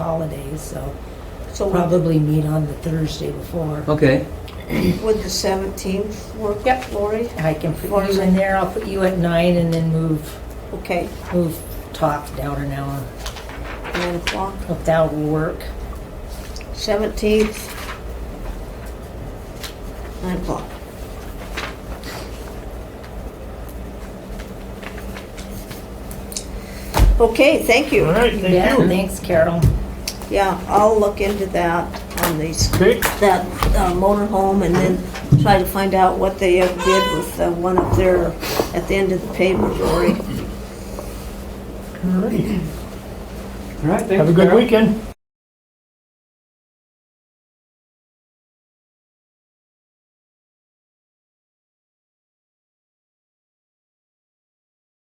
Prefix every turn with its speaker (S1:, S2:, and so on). S1: holidays, so
S2: So would the-
S1: probably meet on the Thursday before.
S3: Okay,
S2: would the 17th work,
S1: Yep.
S2: Lori?
S1: I can put you in there, I'll put you at nine and then move,
S2: Okay,
S1: move talk down an hour.
S2: 9 o'clock,
S1: If that will work.
S2: 17th, 9 o'clock. Okay, thank
S4: All
S2: you.
S4: right,
S1: Yeah,
S4: thank you.
S1: Thanks, Carol.
S2: Yeah, I'll look into that on these,
S4: Okay,
S2: that uh, motor home and then try to find out what they uh, did with uh, one up there at the end of the pavement, Lori.
S4: all right.
S3: all right, thanks.
S4: Have a good
S3: Carol.
S4: weekend.